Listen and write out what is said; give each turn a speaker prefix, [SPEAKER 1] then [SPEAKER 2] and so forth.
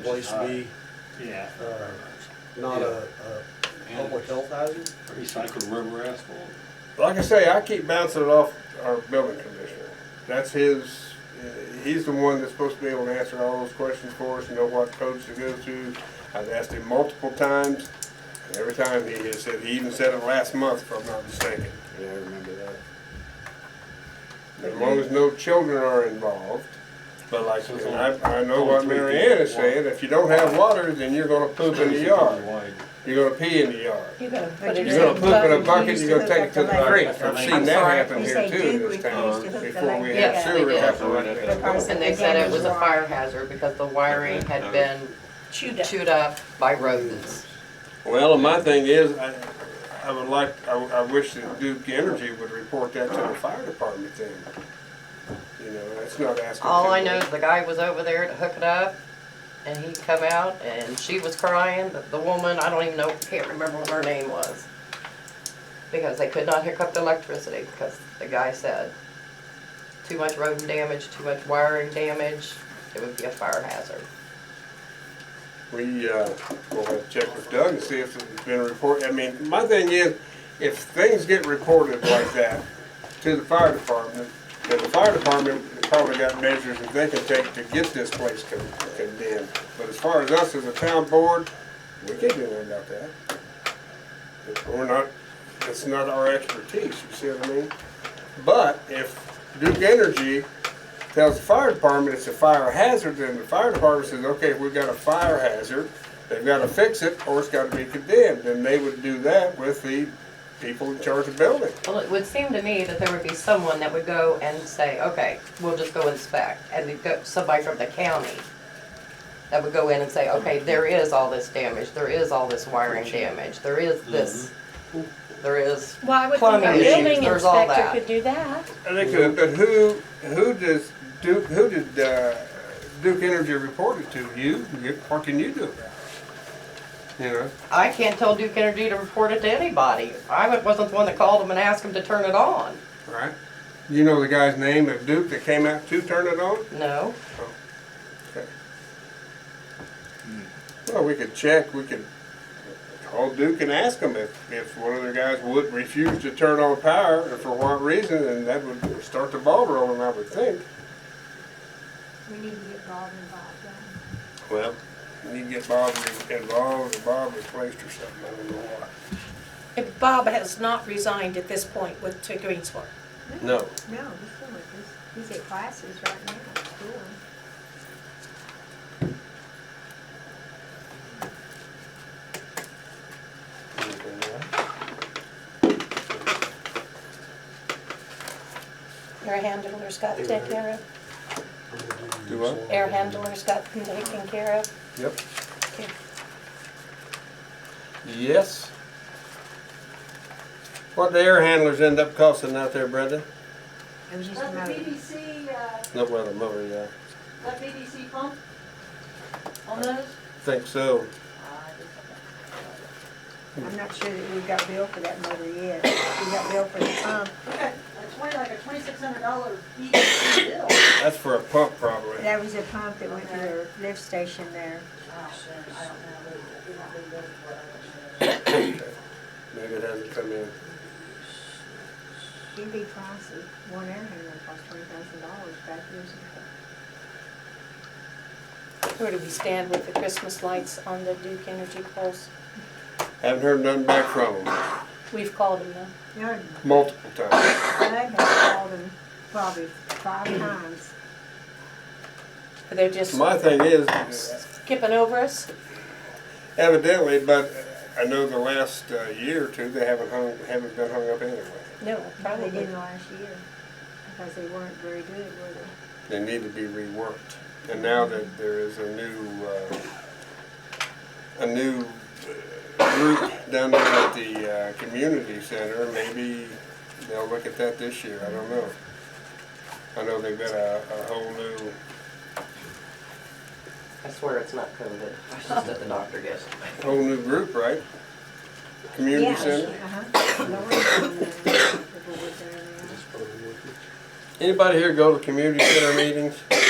[SPEAKER 1] place be
[SPEAKER 2] Yeah,
[SPEAKER 1] uh, not a, a public health hazard?
[SPEAKER 2] recycled rubber asphalt.
[SPEAKER 3] Like I say, I keep bouncing it off our building commissioner. That's his, uh, he's the one that's supposed to be able to answer all those questions for us and know what codes to go to. I've asked him multiple times, and every time he has said, he even said it last month, if I'm not mistaken.
[SPEAKER 4] Yeah, I remember that.
[SPEAKER 3] As long as no children are involved. But like,
[SPEAKER 2] So it's
[SPEAKER 3] and
[SPEAKER 2] only-
[SPEAKER 3] I, I know
[SPEAKER 2] only
[SPEAKER 3] what
[SPEAKER 2] three
[SPEAKER 3] Mary
[SPEAKER 2] feet
[SPEAKER 3] Ann is
[SPEAKER 2] wide.
[SPEAKER 3] saying, if you don't have water, then you're gonna poop in the yard.
[SPEAKER 2] Wide.
[SPEAKER 3] You're gonna pee in the yard.
[SPEAKER 5] You're gonna put
[SPEAKER 6] But
[SPEAKER 5] it in.
[SPEAKER 3] You're gonna
[SPEAKER 6] said
[SPEAKER 3] poop in a
[SPEAKER 6] bucket,
[SPEAKER 3] bucket,
[SPEAKER 6] used
[SPEAKER 3] you're gonna
[SPEAKER 6] to
[SPEAKER 3] take
[SPEAKER 6] hook
[SPEAKER 3] it to the
[SPEAKER 6] the lake.
[SPEAKER 3] creek.
[SPEAKER 2] I'm
[SPEAKER 3] I've seen that
[SPEAKER 6] sorry,
[SPEAKER 3] happen
[SPEAKER 6] you
[SPEAKER 3] here
[SPEAKER 6] say
[SPEAKER 3] too in
[SPEAKER 6] do,
[SPEAKER 3] this
[SPEAKER 6] we used to
[SPEAKER 3] town.
[SPEAKER 6] hook the
[SPEAKER 3] Before we
[SPEAKER 6] lake
[SPEAKER 3] had
[SPEAKER 6] up.
[SPEAKER 3] sewer,
[SPEAKER 6] They
[SPEAKER 3] it
[SPEAKER 6] did.
[SPEAKER 3] happened like that.
[SPEAKER 5] Because
[SPEAKER 6] And they said it was a fire hazard because the wiring had been
[SPEAKER 5] Chewed up.
[SPEAKER 6] chewed up by rodents.
[SPEAKER 3] Well, my thing is, I, I would like, I, I wish that Duke Energy would report that to the fire department then. You know, that's not asking.
[SPEAKER 6] All
[SPEAKER 3] too
[SPEAKER 6] I know
[SPEAKER 3] much.
[SPEAKER 6] is the guy was over there to hook it up and he come out and she was crying, the, the woman, I don't even know, can't remember what her name was. Because they could not hook up the electricity because the guy said too much rodent damage, too much wiring damage, it would be a fire hazard.
[SPEAKER 3] We, uh, we'll have to check with Doug and see if it's been reported. I mean, my thing is, if things get reported like that to the fire department, then the fire department probably got measures that they can take to get this place con- condemned. But as far as us as a town board, we can't do anything about that. We're not, it's not our expertise, you see what I mean? But if Duke Energy tells the fire department it's a fire hazard, then the fire department says, okay, we've got a fire hazard, they've gotta fix it, or it's gotta be condemned, then they would do that with the people in charge of building.
[SPEAKER 6] Well, it would seem to me that there would be someone that would go and say, okay, we'll just go inspect, and we'd go, somebody from the county that would go in and say, okay, there is all this damage, there is all this wiring damage, there is this, there is,
[SPEAKER 5] Well, I would think
[SPEAKER 6] Plumbing
[SPEAKER 5] our
[SPEAKER 6] issues,
[SPEAKER 5] building
[SPEAKER 6] there's all
[SPEAKER 5] inspector
[SPEAKER 6] that.
[SPEAKER 5] could do that.
[SPEAKER 3] And they could, but who, who does Duke, who did, uh, Duke Energy report it to? You, You- what can you do about it? You know,
[SPEAKER 6] I can't tell Duke Energy to report it to anybody. I wasn't the one that called them and asked them to turn it on,
[SPEAKER 3] right? You know the guy's name at Duke that came out to turn it on?
[SPEAKER 6] no.
[SPEAKER 3] Well, we could check, we could call Duke and ask them if, if one of their guys would refuse to turn on power and for what reason, and that would start the ball rolling, I would think.
[SPEAKER 7] We need to get Bob involved, yeah.
[SPEAKER 3] Well. You need to get Bob re- involved, or Bob replaced or something, I don't know why.
[SPEAKER 5] If Bob has not resigned at this point with, to Greensport.
[SPEAKER 3] No.
[SPEAKER 7] No, he's still with us. He's at classes right now at school.
[SPEAKER 5] Air handlers got taken care of.
[SPEAKER 3] Do what?
[SPEAKER 5] Air handlers got them taken care of.
[SPEAKER 3] Yep.
[SPEAKER 5] Okay.
[SPEAKER 3] Yes. What the air handlers end up costing out there, Brenda?
[SPEAKER 7] It was just a
[SPEAKER 8] Let the
[SPEAKER 7] matter.
[SPEAKER 8] BBC, uh,
[SPEAKER 3] No, well, the motor, yeah.
[SPEAKER 8] let BBC pump on those?
[SPEAKER 3] Think so.
[SPEAKER 7] I'm not sure that we've got bill for that motor yet. We got bill for the pump.
[SPEAKER 8] That's twenty, like a twenty-six hundred dollar BBC bill. Gosh,
[SPEAKER 3] That's for a pump probably.
[SPEAKER 7] That was a pump that went to the lift station there.
[SPEAKER 8] I don't know, we're not really ready for it.
[SPEAKER 3] Maybe it hasn't come in.
[SPEAKER 7] It'd be pricey. One air handler cost twenty thousand dollars back years ago.
[SPEAKER 5] Where do we stand with the Christmas lights on the Duke Energy poles?
[SPEAKER 3] Haven't heard nothing back from them.
[SPEAKER 5] We've called them now.
[SPEAKER 7] No,
[SPEAKER 3] Multiple times.
[SPEAKER 7] Bud has called him probably five times.
[SPEAKER 5] They're just
[SPEAKER 3] My thing is,
[SPEAKER 5] skipping over us.
[SPEAKER 3] evidently, but I know the last uh, year or two, they haven't hung, haven't been hung up anyway.
[SPEAKER 5] No,
[SPEAKER 7] They
[SPEAKER 5] probably
[SPEAKER 7] didn't last year because they weren't very good, were they?
[SPEAKER 3] They need to be reworked. And now that there is a new, uh, a new uh, group down there at the uh, community center, maybe they'll look at that this year, I don't know. I know they've got a, a whole new,
[SPEAKER 6] I swear it's not COVID. I was just at the doctor yesterday.
[SPEAKER 3] whole new group, right? Community
[SPEAKER 7] Yeah.
[SPEAKER 3] center?
[SPEAKER 7] Uh-huh. Lauren's been there, people were there now.
[SPEAKER 1] That's probably worth it.
[SPEAKER 3] Anybody here go to community center meetings?